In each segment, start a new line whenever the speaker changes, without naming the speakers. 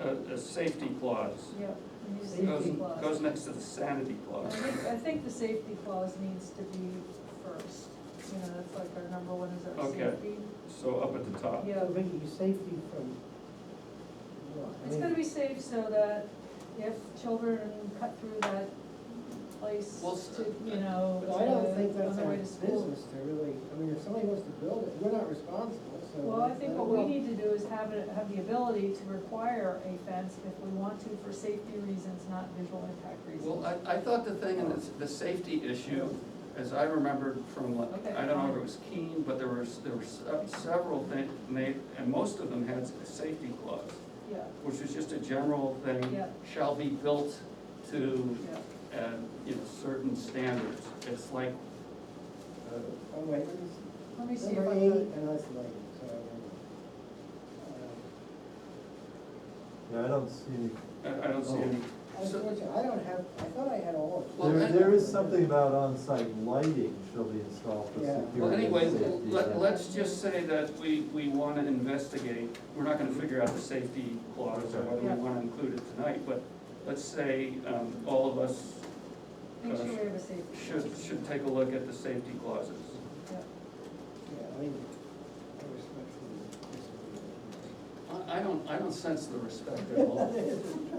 a, a safety clause.
yeah. we need a safety
Goes,
clause.
goes next to the sanity
I
clause.
think, I think the safety clause needs to be first, you know, that's like our number one is our
Okay. Uh,
safety.
So up at the top.
Yeah,
Making safety from what? I
it's
mean,
gonna be safe so that if children cut through that place
Well,
to, you
uh,
know,
But I don't think
to- on
that's
the
our
way to school.
business to really, I mean, if somebody wants to build it, we're not responsible, so.
Well, I think what
don't
we
know.
need to do is have it, have the ability to require a fence if we want to for safety reasons, not visual impact reasons.
Well, I, I thought the thing, and it's the safety issue, as I remembered from, like,
Okay.
I don't know if it was Keene, but there was, there were se- several things, and they, and most of them had a safety clause,
Yeah,
which is just a general thing,
Yeah.
shall be built to,
yeah.
uh, you know, certain standards. It's like, uh,
Oh, wait, what is-
Let me see if I
number
can.
eight, and that's lighting, so. I don't know.
Yeah, I don't see,
I, I don't see any,
Uh, Unfortunately, I don't have, I thought I had all of
Well,
there,
I-
them.
there is something about on-site lighting shall be installed for
Yeah.
security.
well, anyway,
and safety
let,
and-
let's just say that we, we wanna investigate, we're not gonna figure out the safety clause or whether
Yeah.
we wanna include it tonight, but let's say, um, all of us
Make sure we have a safety.
should, should take a look at the safety clauses.
Yeah.
Yeah, I mean, I respectfully.
I, I don't, I don't sense the respect at all,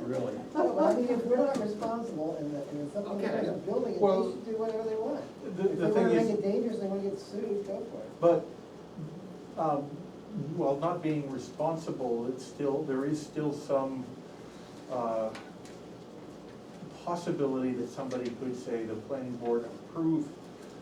really.
No, but I mean, if we're not responsible and that, and if somebody
Okay.
has a building, it,
Well,
they should do whatever they want.
the- the
If they wanna
thing is-
make it dangerous, they wanna get sued, go for it.
But, um, well, not being responsible, it's still, there is still some, uh, possibility that somebody could say the planning board approved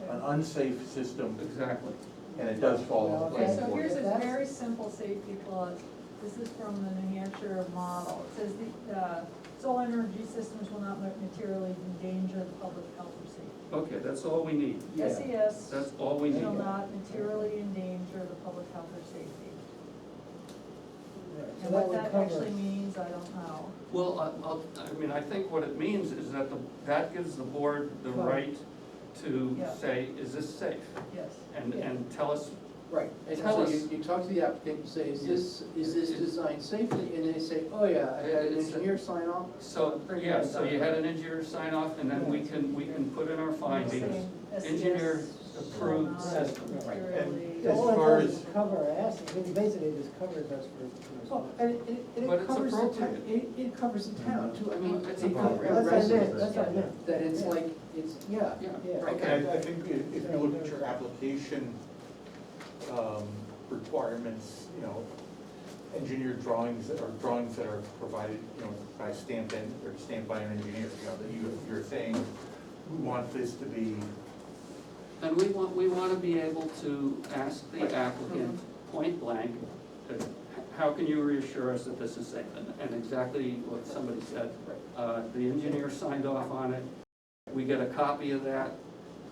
an unsafe system,
Exactly.
and it does fall on the
Okay,
planning
so
board.
here's a
That's-
very simple safety clause. This is from the New Hampshire model. It says the, uh, solar energy systems will not materially endanger the public health or safety.
Okay, that's all we need.
SES
That's all we
shall
need.
not materially endanger the public health or safety.
Right, so
And what
would
that
cover-
actually means, I don't know.
Well, I, I'll- I mean, I think what it means is that the, that gives the board the right to
Yeah.
say, is this safe?
Yes.
And,
Yeah.
and tell us,
Right, and
Tell
so
us.
you, you talk to the applicant, you say, is this, is this designed safely? And they say, oh yeah, I had an
It's a-
engineer sign off.
so, yeah, so you had an engineer sign off, and then we can, we can put in our findings.
Saying SES
Engineer
shall
approved
E not
system.
materially-
And- As
All it
far
does
as-
is cover us, I mean, basically it just covers us for.
Well, and it, and
But
it
it's
covers the town,
appropriate.
it, it covers the town too, I mean,
It's
they cover
appropriate.
That's what I meant,
residents.
that's what I meant.
That it's
Yeah.
like, it's, yeah,
Yeah,
Yeah.
right.
And I, I think if, if you look at your application, um, requirements, you know, engineered drawings that are, drawings that are provided, you know, by stamped in, or stamped by an engineer, you know, that you, you're saying, we want this to be,
And we want, we want to be able to ask the applicant point blank, uh, h- how can you reassure us that this is safe? And- And exactly what somebody said, uh, the engineer signed off on it, we get a copy of that,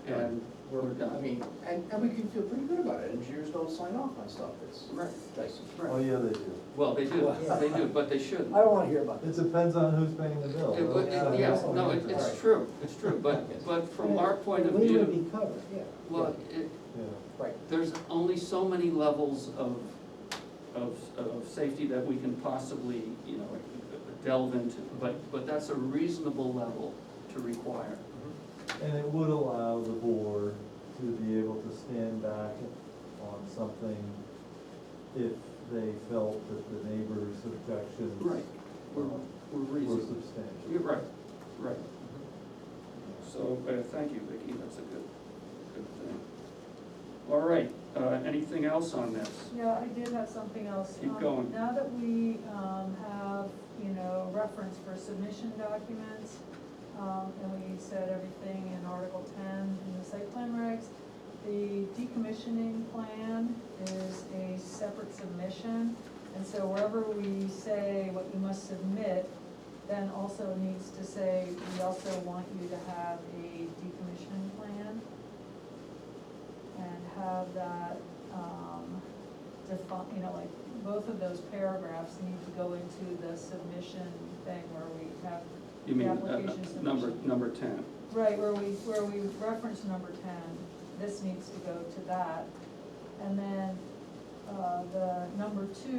and we're
I
done.
mean, and, and we can feel pretty good about it, engineers don't sign off on stuff that's,
Right.
that's.
Oh, yeah, they do.
Well, they do, they do, but they shouldn't.
I don't wanna hear about
It depends on who's paying the bill.
It would- it- Yes, no, it- it's true, it's true, but, but from our point of
We would
view,
be covered, yeah.
well, it,
Yeah.
there's only so many levels of, of, of safety that we can possibly, you know, delve into, but, but that's a reasonable level to require.
And it would allow the board to be able to stand back on something if they felt that the neighbor's objections
Right, we're,
were
we're reasonable. You're
substantial.
right, right. So, uh, thank you, Vicki, that's a good, good thing. All right, uh, anything else on this?
Yeah, I did have something else.
Keep
Um,
going.
Now that we um, have, you know, reference for submission documents, um, and we said everything in Article ten in the site plan regs, the decommissioning plan is a separate submission. And so wherever we say what you must submit, then also needs to say, we also want you to have a decommissioning plan and have that, um, define, you know, like, both of those paragraphs need to go into the submission thing where we have,
You mean,
The
uh,
application submission.
number, number ten?
right, where we, where we reference number ten, this needs to go to that. And then, uh, the number two